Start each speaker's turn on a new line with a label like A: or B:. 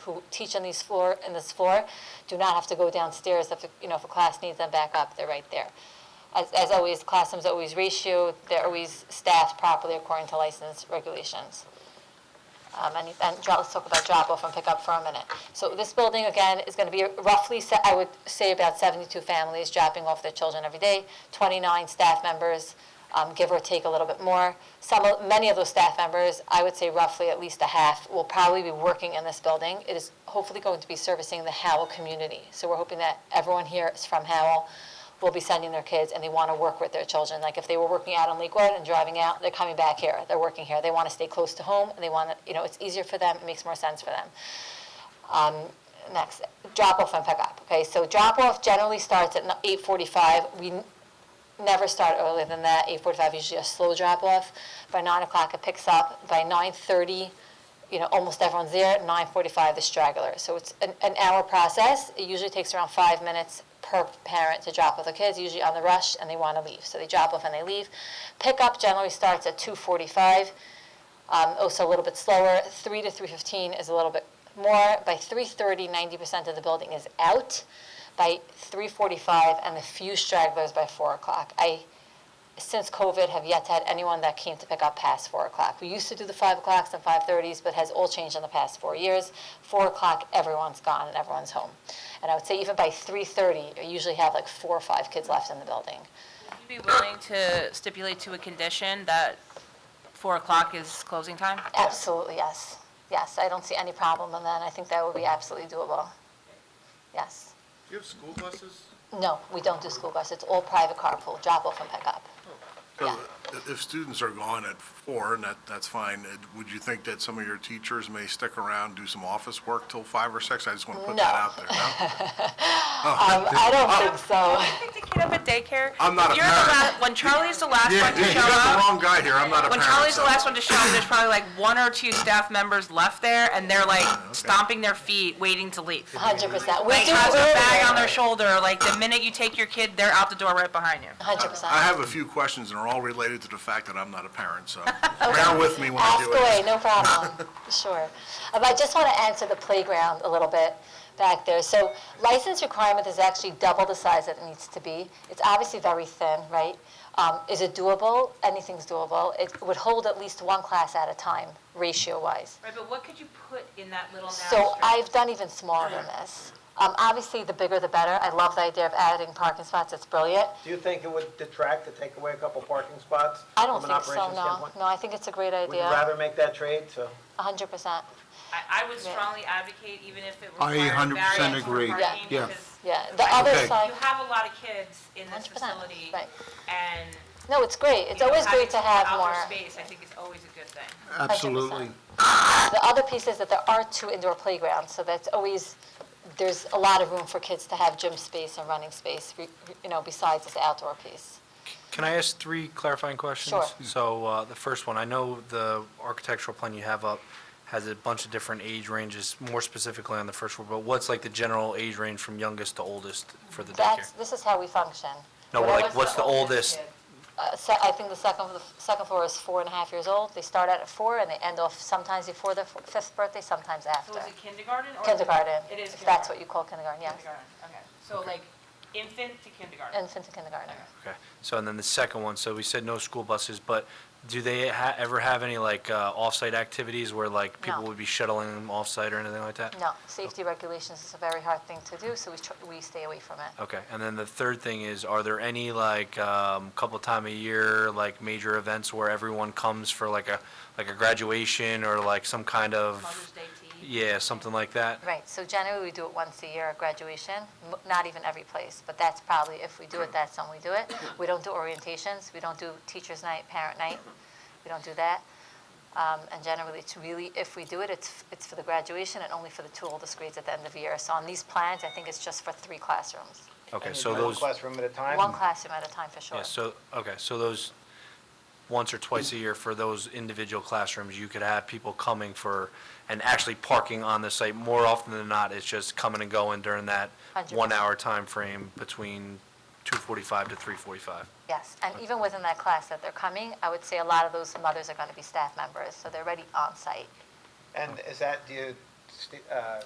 A: who teach on these floor, in this floor, do not have to go downstairs if, you know, if a class needs them back up, they're right there. As, as always, classrooms always ratio, they're always staffed properly according to license regulations. Um, and, and dro- let's talk about drop-off and pick-up for a minute. So this building, again, is gonna be roughly, se- I would say about seventy-two families dropping off their children every day, twenty-nine staff members, um, give or take a little bit more. Some, of- many of those staff members, I would say roughly at least a half, will probably be working in this building. It is hopefully going to be servicing the Howell community. So we're hoping that everyone here is from Howell, will be sending their kids and they want to work with their children. Like if they were working out on Lakewood and driving out, they're coming back here. They're working here. They want to stay close to home and they want to, you know, it's easier for them. It makes more sense for them. Um, next, drop off and pick up. Okay, so drop off generally starts at 8:45. We n- never start earlier than that. 8:45 usually a slow drop off. By nine o'clock it picks up. By 9:30 you know, almost everyone's there, nine forty-five, the straggler. So it's an, an hour process. It usually takes around five minutes per parent to drop off the kids, usually on the rush, and they want to leave. So they drop off and they leave. Pickup generally starts at two forty-five, um, also a little bit slower. Three to three fifteen is a little bit more. By 3.30, 90% of the building is out. By 3.45, and a few stragglers by four o'clock. I since COVID have yet to had anyone that came to pick up past four o'clock. We used to do the five o'clocks and five thirties, but has all changed in the past four years. Four o'clock, everyone's gone and everyone's home. And I would say even by three thirty, you usually have like four or five kids left in the building.
B: you be willing to stipulate to a condition that 4 o'clock is closing time?
A: Absolutely, yes. Yes, I don't see any problem in that. I think that would be absolutely doable. Yes.
C: Do you have school buses?
A: No, we don't do school bus. It's all private carpool, drop off and pick up.
D: So
A: Yeah.
D: i- if students are gone at four, and that, that's fine, uh, would you think that some of your teachers may stick around, do some office work till five or six? I just want to put that
A: No.
D: out there, no?
A: Um, I don't think so.
B: Pick the kid up at daycare?
D: I'm not a
B: You're the
D: parent.
B: la- When Charlie's the last
D: Yeah,
B: one
D: yeah,
B: to
D: you
B: show
D: got the
B: up,
D: wrong guy here, I'm not a
B: when
D: parent.
B: Charlie's the
D: so-
B: last one to show up, there's probably like one or two staff members left there, and they're like
D: Ah,
B: stomping their feet, waiting to leave.
A: Hundred percent.
B: Like,
A: We do
B: has a bag
A: it.
B: on their shoulder, like, the minute you take your kid, they're out the door right behind you.
A: Hundred
D: I
A: percent.
D: have a few questions, and they're all related to the fact that I'm not a parent, so bear with me when I
A: Ask
D: do it.
A: away, no problem. Sure. Um, I just want to answer the playground a little bit back there. So license requirement is actually double the size that it needs to be. It's obviously very thin, right? Um, Is it doable? Anything's doable. It would hold at least one class at a time, ratio-wise.
B: Right, but what could you put in that little
A: So I've done even smaller than this. Um, Obviously, the bigger the better. I love the idea of adding parking spots. It's brilliant.
E: Do you think it would detract to take away a couple parking spots?
A: I don't
E: from an
A: think so,
E: operations
A: no.
E: standpoint?
A: No, I think it's a great
E: Would you
A: idea,
E: rather make that trade, so?
A: hundred percent.
B: I, I would strongly advocate, even if it
F: I
B: required
F: 100%
B: variance for
F: agree.
A: Yeah.
B: parking,
F: Yeah.
B: because
A: Yeah, the other
F: Okay.
A: side,
B: you have a lot of kids in this
A: 100%,
B: facility,
A: right.
B: and.
A: no, it's great, it's
B: you know,
A: always
B: having
A: great to have
B: outdoor
A: more.
B: Space, I think is always a good thing.
F: Absolutely.
A: The other piece is that there are two indoor playgrounds, so that's always, there's a lot of room for kids to have gym space and running space, re- re- you know, besides this outdoor piece.
G: Can I ask three clarifying questions?
A: Sure.
G: So uh, the first one, I know the architectural plan you have up has a bunch of different age ranges, more specifically on the first floor, but what's like the general age range from youngest to oldest for the
A: That's,
G: daycare?
A: this is how we function.
G: No,
A: Whatever-
G: like, what's the oldest?
A: uh, se- I think the second, the second floor is four and a half years old, they start out at four and they end off sometimes before their f- fifth birthday, sometimes
B: So
A: after.
B: is it kindergarten or?
A: Kindergarten,
B: It is kindergarten.
A: if that's what you call kindergarten, yes,
B: Kindergarten, okay. So like infant to kindergarten.
A: infant to kindergarten.
G: Okay, so and then the second one, so we said no school buses, but do they ha- ever have any like uh, off-site activities where like people
A: No.
G: would be shuttling them off-site or anything like that?
A: No, safety regulations is a very hard thing to do, so we, tr- we stay away from it.
G: Okay, and then the third thing is, are there any, like, um, couple time a year, like, major events where everyone comes for like a, like a graduation or like some kind
B: Mother's
G: of,
B: Day tea.
G: yeah, something like that?
A: Right, so generally we do it once a year at graduation, m- not even every place, but that's probably, if we do it, that's when we do it. We don't do orientations, we don't do teacher's night, parent night, we don't do that. Um, And generally, it's really, if we do it, it's, f- it's for the graduation and only for the two oldest grades at the end of the year. So on these plans, I think it's just for three classrooms,
G: Okay,
E: And
G: so
E: one
G: those,
E: Classroom at a time?
A: one classroom at a time for sure.
G: yeah, so, okay, so those, once or twice a year for those individual classrooms, you could have people coming for, and actually parking on the site more often than not, it's just coming and going during that
A: Hundred percent.
G: one-hour time frame between two forty-five to three forty-five.
A: Yes, and even within that class that they're coming, I would say a lot of those mothers are going to be staff members, so they're already on site.
E: And is that, do you sti- uh,